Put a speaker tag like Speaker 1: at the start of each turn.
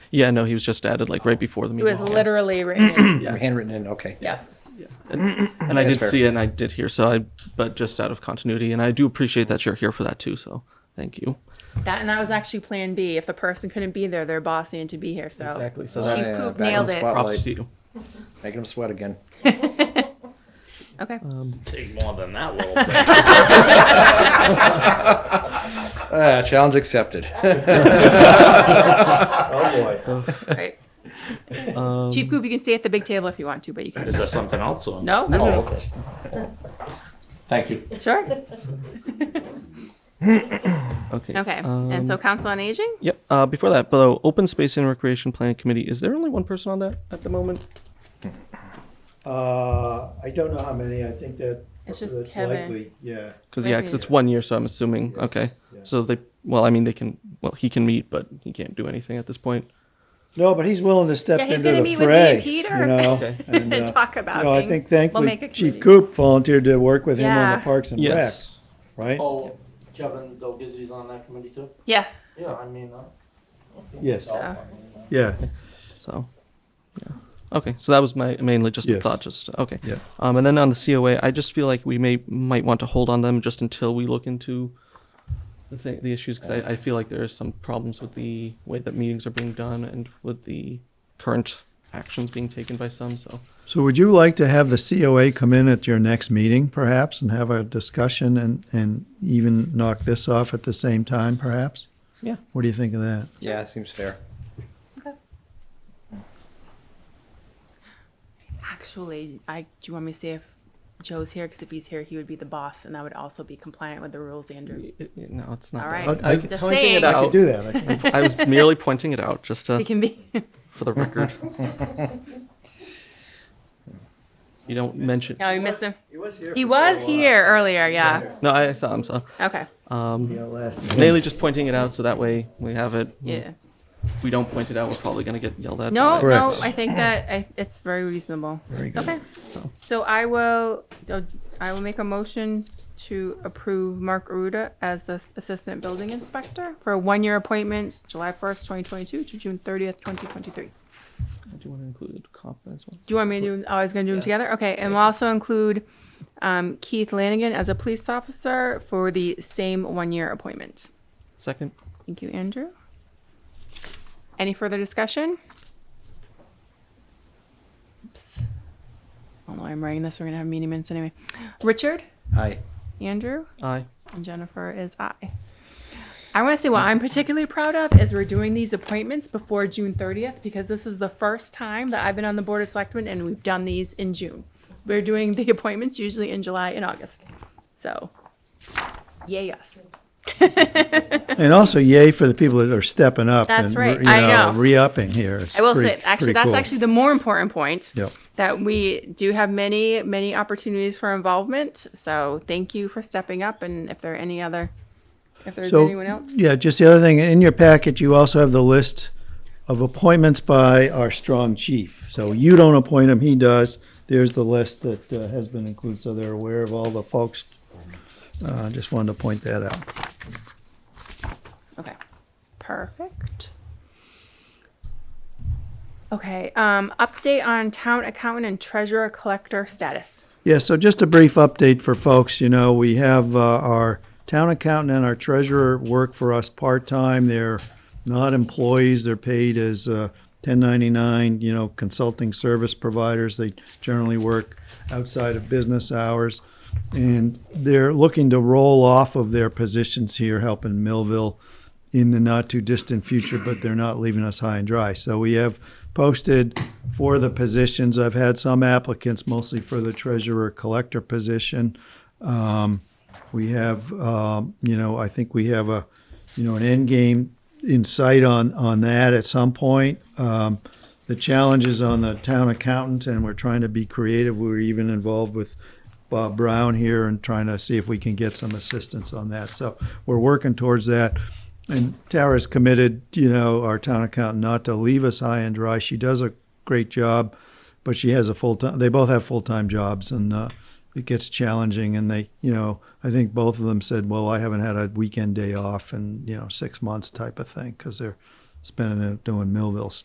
Speaker 1: Yeah, no, he was just added like right before the
Speaker 2: Oh. It
Speaker 1: meeting.
Speaker 2: was literally written.
Speaker 1: Yeah.
Speaker 3: Handwritten in, okay.
Speaker 2: yeah.
Speaker 1: and I
Speaker 3: That's
Speaker 1: did
Speaker 3: fair.
Speaker 1: see it and I did hear. So I, but just out of continuity, and I do appreciate that you're here for that too. So thank you.
Speaker 2: That and that was actually Plan B. If the person couldn't be there, their boss needed to be here. So
Speaker 1: Exactly, so
Speaker 2: Chief
Speaker 3: that-
Speaker 2: Poop
Speaker 3: Yeah,
Speaker 2: nailed
Speaker 3: back
Speaker 2: it.
Speaker 3: on
Speaker 1: Props
Speaker 3: Like-
Speaker 1: to you.
Speaker 3: Making them sweat again.
Speaker 2: Okay.
Speaker 4: Take more than that little thing.
Speaker 3: Ah, challenge accepted.
Speaker 4: oh
Speaker 5: Um,
Speaker 4: boy.
Speaker 2: All right. Chief Coop, you can stay at the big table if you want to, but you can.
Speaker 4: Is there something else on?
Speaker 2: No, that's
Speaker 4: Oh, okay. Thank you.
Speaker 2: sure.
Speaker 1: Okay.
Speaker 2: Okay. and so Council on Aging.
Speaker 1: Yep. Uh, before that, though, Open Space and Recreation Planning Committee. Is there only one person on that at the moment?
Speaker 5: Uh, I don't know how many, I think that.
Speaker 2: It's just
Speaker 5: that's
Speaker 2: Kevin.
Speaker 5: likely, Yeah.
Speaker 1: Because
Speaker 2: Might
Speaker 1: yeah, because
Speaker 2: be.
Speaker 1: it's one year, so I'm assuming.
Speaker 5: Yes,
Speaker 1: Okay.
Speaker 5: yeah.
Speaker 1: So they. Well, I mean, they can. Well, he can meet, but he can't do anything at this point.
Speaker 5: No, but he's willing to step
Speaker 2: Yeah, he's
Speaker 5: into
Speaker 2: gonna
Speaker 5: the
Speaker 2: meet with me
Speaker 5: fray.
Speaker 2: and Peter
Speaker 5: you know,
Speaker 1: Okay.
Speaker 5: and,
Speaker 2: and
Speaker 5: uh,
Speaker 2: talk about
Speaker 5: You know, I
Speaker 2: things.
Speaker 5: think
Speaker 2: We'll make a
Speaker 5: thankfully Chief
Speaker 2: committee.
Speaker 5: Coop volunteered to work with him on
Speaker 2: Yeah.
Speaker 5: the Parks and Rec,
Speaker 1: Yes.
Speaker 5: right?
Speaker 6: Oh, Kevin Delgizzi's on that committee too?
Speaker 2: Yeah.
Speaker 6: Yeah, I mean, uh,
Speaker 5: Yes,
Speaker 2: So.
Speaker 5: yeah.
Speaker 1: So, yeah. Okay, so that was my mainly just a
Speaker 5: Yes.
Speaker 1: thought. Just okay.
Speaker 5: Yeah.
Speaker 1: Um, and then on the COA, I just feel like we may might want to hold on them just until we look into the thing, the issues because I, I feel like there are some problems with the way that meetings are being done and with the current actions being taken by some. So
Speaker 5: So would you like to have the COA come in at your next meeting perhaps and have a discussion and, and even knock this off at the same time perhaps?
Speaker 1: Yeah.
Speaker 5: What do you think of that?
Speaker 3: Yeah, seems fair.
Speaker 2: Actually, I do you want me to see if Joe's here? Because if he's here, he would be the boss, and that would also be compliant with the rules, Andrew.
Speaker 1: y- y- no, it's not.
Speaker 2: All
Speaker 1: that.
Speaker 2: right.
Speaker 5: I- I-
Speaker 2: just
Speaker 5: pointing
Speaker 2: saying.
Speaker 5: I could do that. I could-
Speaker 1: I was merely pointing it out just
Speaker 2: It
Speaker 1: to,
Speaker 2: can be.
Speaker 1: for the record. you don't mention.
Speaker 2: no, we missed him.
Speaker 5: He was here.
Speaker 2: He was here earlier. Yeah.
Speaker 1: No, I saw. I'm sorry.
Speaker 2: Okay.
Speaker 1: Um,
Speaker 5: Yeah, last.
Speaker 1: mainly just pointing it out so that way we have it.
Speaker 2: Yeah.
Speaker 1: If we don't point it out, we're probably going to get yelled at.
Speaker 2: No,
Speaker 1: by-
Speaker 2: no,
Speaker 5: Correct.
Speaker 2: I think that I, it's very reasonable. Very
Speaker 5: good.
Speaker 2: Okay,
Speaker 1: So.
Speaker 2: so I will, oh, I will make a motion to approve Mark Aruda as the Assistant Building Inspector for one-year appointments, July first, twenty twenty-two to June thirtieth, twenty twenty-three.
Speaker 1: I do want to include comp as well.
Speaker 2: Do you want me to do, oh, I was gonna do them together? Okay, and we'll also include, um, Keith Lanigan as a police officer for the same one-year appointment.
Speaker 1: Second.
Speaker 2: Thank you, Andrew. Any further discussion? Oops. I don't know why I'm writing this. We're going to have meeting minutes anyway. Richard,
Speaker 3: Aye.
Speaker 2: Andrew,
Speaker 1: Aye.
Speaker 2: and Jennifer is I. I want to say what I'm particularly proud of is we're doing these appointments before June 30th because this is the first time that I've been on the Board of Selectmen and we've done these in June. We're doing the appointments usually in July and August. So, yay us.
Speaker 5: And also, yay for the people that are stepping up.
Speaker 2: That's
Speaker 5: and,
Speaker 2: right.
Speaker 5: you
Speaker 2: I know.
Speaker 5: Re-upping here. It's
Speaker 2: I will
Speaker 5: pretty-
Speaker 2: say, actually,
Speaker 5: pretty
Speaker 2: that's
Speaker 5: cool.
Speaker 2: actually the more important point.
Speaker 5: Yep.
Speaker 2: That we do have many, many opportunities for involvement. So thank you for stepping up. And if there are any other, if there's
Speaker 5: So,
Speaker 2: anyone else,
Speaker 5: Yeah, just the other thing, in your packet, you also have the list of appointments by our strong chief. So you don't appoint him, he does. There's the list that uh, has been included, so they're aware of all the folks. Uh, just wanted to point that out.
Speaker 2: okay, perfect. Okay. Um, update on town accountant and treasurer collector status.
Speaker 5: Yeah, so just a brief update for folks. You know, we have uh, our town accountant and our treasurer work for us part-time. They're not employees. They're paid as uh, 1099, you know, consulting service providers. They generally work outside of business hours. And they're looking to roll off of their positions here helping Millville in the not too distant future, but they're not leaving us high and dry. So we have posted for the positions. I've had some applicants, mostly for the treasurer collector position. Um, we have, um, you know, I think we have a, you know, an end game in sight on on that at some point. Um, the challenge is on the town accountant, and we're trying to be creative. We were even involved with Bob Brown here and trying to see if we can get some assistance on that. So we're working towards that. And Tara's committed, you know, our town accountant not to leave us high and dry. She does a great job, but she has a full time. They both have full time jobs, and uh, it gets challenging. And they, you know, I think both of them said, "Well, I haven't had a weekend day off in you know six months," type of thing, because they're spending it doing Millville